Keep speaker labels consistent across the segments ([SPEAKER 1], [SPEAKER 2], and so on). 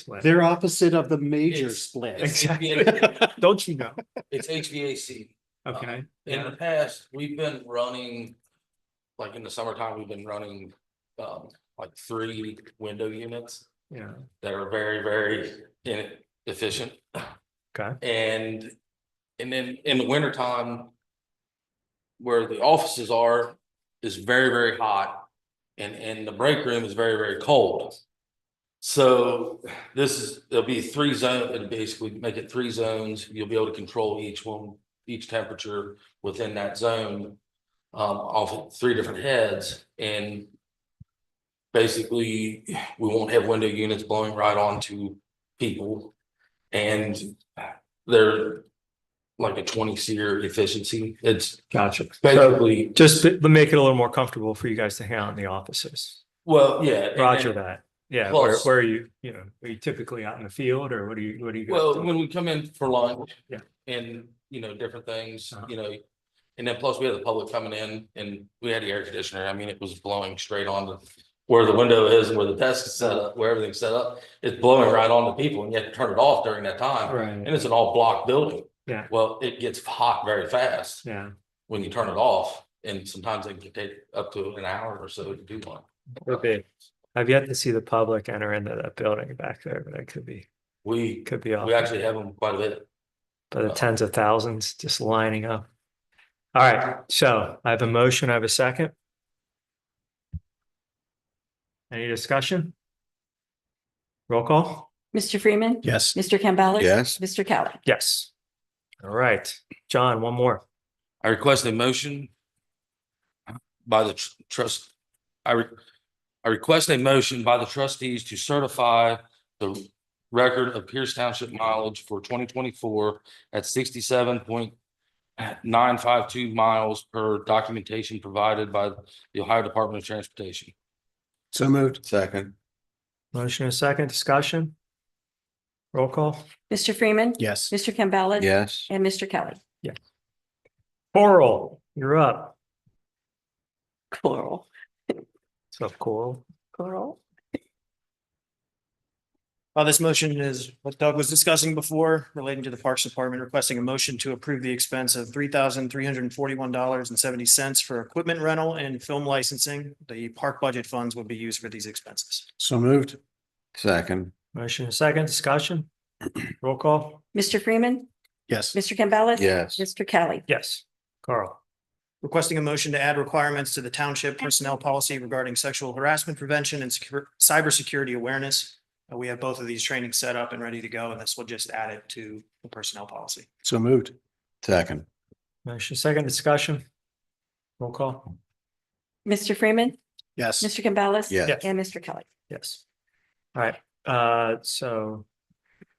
[SPEAKER 1] split.
[SPEAKER 2] They're opposite of the major
[SPEAKER 3] It's-
[SPEAKER 2] split.
[SPEAKER 3] it's-
[SPEAKER 1] Exactly. Don't you know?
[SPEAKER 3] It's HVAC.
[SPEAKER 1] Okay.
[SPEAKER 3] In the
[SPEAKER 1] Yeah.
[SPEAKER 3] past, we've been running, like in the summertime, we've been running, um, like three window units
[SPEAKER 1] Yeah.
[SPEAKER 3] that are very, very inefficient.
[SPEAKER 1] Okay.
[SPEAKER 3] And, and then in the wintertime, where the offices are, is very, very hot. And, and the break room is very, very cold. So this is, there'll be three zone, and basically make it three zones. You'll be able to control each one, each temperature within that zone. Um, off of three different heads and basically, we won't have window units blowing right onto people. And they're like a twenty seer efficiency. It's
[SPEAKER 1] Gotcha. So
[SPEAKER 3] basically,
[SPEAKER 1] just to to make it a little more comfortable for you guys to hang out in the offices.
[SPEAKER 3] well, yeah. and-
[SPEAKER 1] Roger
[SPEAKER 3] and-
[SPEAKER 1] that. Yeah. Where,
[SPEAKER 3] Plus-
[SPEAKER 1] where are you, you know, are you typically out in the field or what do you, what do you? guys
[SPEAKER 3] Well,
[SPEAKER 1] do?
[SPEAKER 3] when we come in for lunch.
[SPEAKER 1] Yeah.
[SPEAKER 3] And, you know, different things,
[SPEAKER 1] Uh-huh.
[SPEAKER 3] you know, and then plus we had the public coming in and we had the air conditioner. I mean, it was blowing straight on the. Where the window is and where the desk is set up, where everything's set up, it's blowing right on the people and you have to turn it off during that time.
[SPEAKER 1] Right.
[SPEAKER 3] And it's an all block building.
[SPEAKER 1] Yeah.
[SPEAKER 3] Well, it gets hot very fast
[SPEAKER 1] Yeah.
[SPEAKER 3] when you turn it off and sometimes it can take up to an hour or so to do one.
[SPEAKER 1] Could be. I've yet to see the public enter into that building back there, but it could be,
[SPEAKER 3] We,
[SPEAKER 1] could be off
[SPEAKER 3] we actually have them quite a bit.
[SPEAKER 1] by the tens of thousands just lining up. All right. So I have a motion. I have a second. Any discussion? Roll call?
[SPEAKER 4] Mr. Freeman.
[SPEAKER 5] Yes.
[SPEAKER 4] Mr. Campbell.
[SPEAKER 5] Yes.
[SPEAKER 4] Mr. Kelly.
[SPEAKER 1] Yes. All right, John, one more.
[SPEAKER 3] I request a motion by the tr- trust, I, re- I request a motion by the trustees to certify the record of Pierce Township mileage for twenty twenty-four at sixty-seven point nine five two miles per documentation provided by the Ohio Department of Transportation.
[SPEAKER 5] So moved. Second.
[SPEAKER 1] Motion and second discussion. Roll call.
[SPEAKER 4] Mr. Freeman.
[SPEAKER 5] Yes.
[SPEAKER 4] Mr. Campbell.
[SPEAKER 5] Yes.
[SPEAKER 4] And Mr. Kelly.
[SPEAKER 1] Coral, you're up.
[SPEAKER 4] Coral.
[SPEAKER 1] So Coral.
[SPEAKER 4] Coral.
[SPEAKER 6] Uh, this motion is what Doug was discussing before relating to the Parks Department requesting a motion to approve the expense of three thousand three hundred and forty-one dollars and seventy cents for equipment rental and film licensing. The park budget funds would be used for these expenses.
[SPEAKER 5] So moved. Second.
[SPEAKER 1] Motion and second discussion. Roll call.
[SPEAKER 4] Mr. Freeman.
[SPEAKER 5] Yes.
[SPEAKER 4] Mr. Campbell.
[SPEAKER 5] Yes.
[SPEAKER 4] Mr. Kelly.
[SPEAKER 1] Yes. Carl.
[SPEAKER 6] Requesting a motion to add requirements to the township personnel policy regarding sexual harassment prevention and secure, cybersecurity awareness. Uh, we have both of these trainings set up and ready to go, and this will just add it to the personnel policy.
[SPEAKER 5] So moved. Second.
[SPEAKER 1] Motion and second discussion. Roll call.
[SPEAKER 4] Mr. Freeman.
[SPEAKER 5] Yes.
[SPEAKER 4] Mr. Campbell.
[SPEAKER 5] Yes.
[SPEAKER 4] And Mr. Kelly.
[SPEAKER 1] Yes. All right, uh, so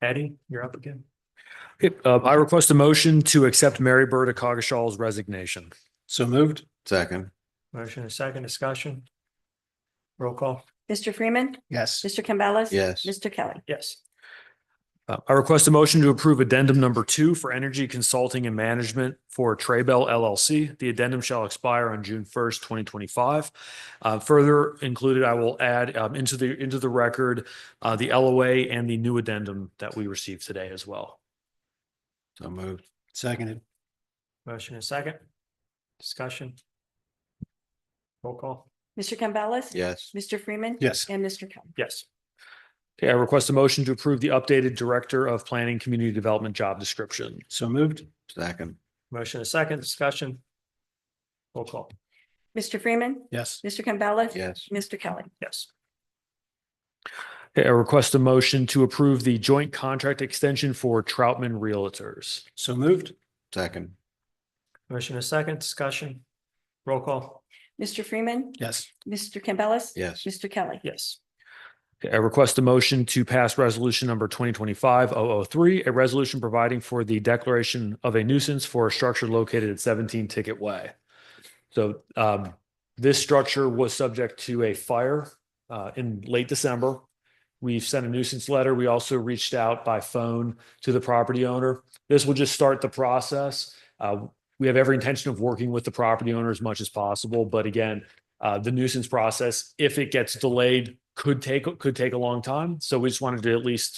[SPEAKER 1] Eddie, you're up again.
[SPEAKER 7] Okay, uh, I request a motion to accept Mary Berta Cogashaw's resignation.
[SPEAKER 5] So moved. Second.
[SPEAKER 1] Motion and second discussion. Roll call.
[SPEAKER 4] Mr. Freeman.
[SPEAKER 5] Yes.
[SPEAKER 4] Mr. Campbell.
[SPEAKER 5] Yes.
[SPEAKER 4] Mr. Kelly.
[SPEAKER 1] Yes.
[SPEAKER 7] Uh, I request a motion to approve addendum number two for energy consulting and management for Traybell LLC. The addendum shall expire on June first, twenty twenty-five. Uh, further included, I will add, um, into the, into the record, uh, the LOA and the new addendum that we received today as well.
[SPEAKER 5] So moved. Seconded.
[SPEAKER 1] Motion and second. Discussion. Roll call.
[SPEAKER 4] Mr. Campbell.
[SPEAKER 5] Yes.
[SPEAKER 4] Mr. Freeman.
[SPEAKER 5] Yes.
[SPEAKER 4] And Mr. Kelly.
[SPEAKER 1] Yes.
[SPEAKER 7] Okay, I request a motion to approve the updated Director of Planning Community Development job description.
[SPEAKER 5] So moved. Second.
[SPEAKER 1] Motion and second. Discussion. Roll call.
[SPEAKER 4] Mr. Freeman.
[SPEAKER 5] Yes.
[SPEAKER 4] Mr. Campbell.
[SPEAKER 5] Yes.
[SPEAKER 4] Mr. Kelly.
[SPEAKER 1] Yes.
[SPEAKER 7] Okay, I Uh, request a motion to approve the joint contract extension for Troutman Realtors.
[SPEAKER 5] So moved. Second.
[SPEAKER 1] Motion and second. Discussion. Roll call.
[SPEAKER 4] Mr. Freeman.
[SPEAKER 5] Yes.
[SPEAKER 4] Mr. Campbell.
[SPEAKER 5] Yes.
[SPEAKER 4] Mr. Kelly.
[SPEAKER 1] Yes.
[SPEAKER 7] Okay, I request a motion to pass resolution number 2025-003, a resolution providing for the declaration of a nuisance for a structure located at 17 Ticket Way. So um, this structure was subject to a fire uh, in late December. We've sent a nuisance letter. We also reached out by phone to the property owner. This will just start the process. Uh, We have every intention of working with the property owner as much as possible, but again, uh, the nuisance process, if it gets delayed, could take, could take a long time. So we just wanted to at least